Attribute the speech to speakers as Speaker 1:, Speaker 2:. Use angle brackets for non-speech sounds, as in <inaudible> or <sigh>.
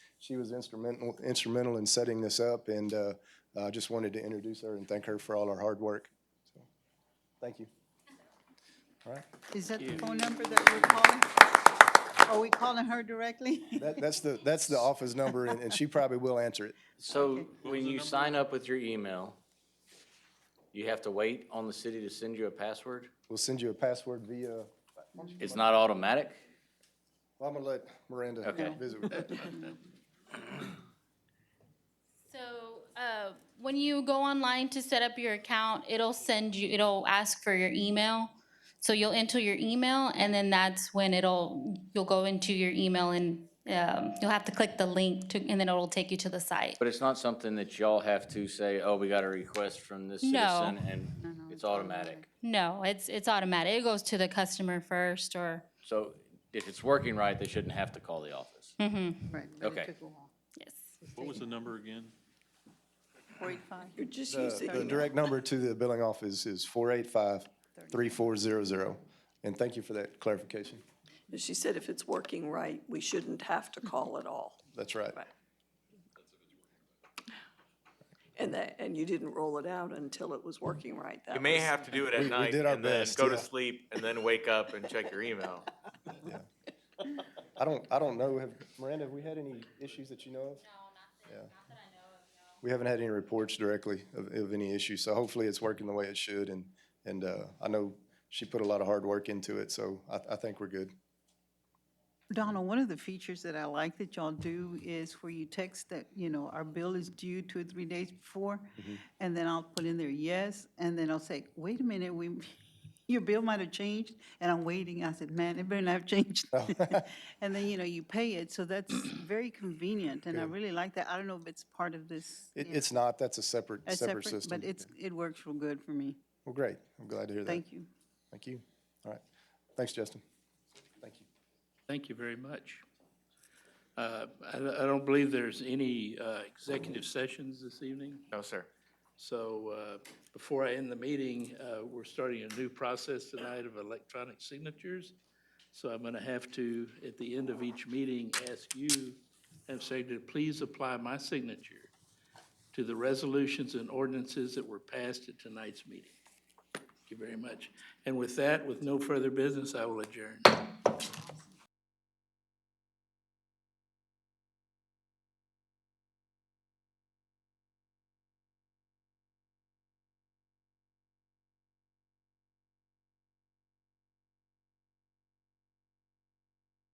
Speaker 1: She was instrumental, instrumental in setting this up, and uh, I just wanted to introduce her and thank her for all her hard work. So, Thank you. All right,
Speaker 2: Is that the phone number that we're calling? Are we calling her directly?
Speaker 1: <laughs> that, that's the, that's the office number, and and she probably will answer it.
Speaker 3: So when you sign up with your email, you have to wait on the city to send you a password?
Speaker 1: We'll send you a password via,
Speaker 3: It's not automatic?
Speaker 1: well, I'm gonna let Miranda
Speaker 3: Okay.
Speaker 1: visit with that.
Speaker 4: So, uh, when you go online to set up your account, it'll send you, it'll ask for your email. So you'll enter your email and then that's when it'll, you'll go into your email and, um, you'll have to click the link to, and then it'll take you to the site.
Speaker 3: But it's not something that y'all have to say, oh, we got a request from this
Speaker 4: No.
Speaker 3: citizen and it's automatic.
Speaker 4: No, it's, it's automatic. It goes to the customer first or,
Speaker 3: So if it's working right, they shouldn't have to call the office.
Speaker 2: Right, but it
Speaker 3: Okay.
Speaker 2: took a while.
Speaker 4: yes.
Speaker 5: What was the number again?
Speaker 2: Forty-five,
Speaker 6: Just use
Speaker 1: Uh, The
Speaker 6: the
Speaker 1: the direct number to the billing office is four eight five three four zero zero, and thank you for that clarification.
Speaker 6: She said if it's working right, we shouldn't have to call at all.
Speaker 1: That's right.
Speaker 6: Right. And that, and you didn't roll it out until it was working right.
Speaker 7: You
Speaker 6: That
Speaker 7: may
Speaker 6: was-
Speaker 7: have to do it
Speaker 1: We-
Speaker 7: at
Speaker 1: we
Speaker 7: night
Speaker 1: did our
Speaker 7: and then
Speaker 1: best,
Speaker 7: go to
Speaker 1: yeah.
Speaker 7: sleep and then wake up and check your email.
Speaker 1: I don't, I don't know, have, Miranda, have we had any issues that you know of? We haven't had any reports directly of, of any issues, so hopefully it's working the way it should, and, and, uh, I know she put a lot of hard work into it, so I, I think we're good.
Speaker 2: Donald, one of the features that I like that y'all do is where you text that, you know, our bill is due two or three days before,
Speaker 1: Mm-hmm.
Speaker 2: and then I'll put in there, yes, and then I'll say, wait a minute, we, <laughs> your bill might have changed, and I'm waiting. I said, man, it better not have changed.
Speaker 1: Oh.
Speaker 2: <laughs> And then, you know, you pay it, so
Speaker 1: <clears throat>
Speaker 2: that's very convenient, and I really like that. I don't know if it's part of this.
Speaker 1: It,
Speaker 2: you know,
Speaker 1: it's not, that's a separate,
Speaker 2: a
Speaker 1: separate system.
Speaker 2: But it's, it works real good for me.
Speaker 1: Well, great, I'm glad to hear that.
Speaker 2: Thank you.
Speaker 1: Thank you. All right, thanks, Justin. Thank you.
Speaker 8: Thank you very much. Uh, I I don't believe there's any uh, executive sessions this evening,
Speaker 7: No, sir.
Speaker 8: so uh, before I end the meeting, uh, we're starting a new process tonight of electronic signatures. So I'm going to have to, at the end of each meeting, ask you, and say to please apply my signature to the resolutions and ordinances that were passed at tonight's meeting. Thank you very much. And with that, with no further business, I will adjourn.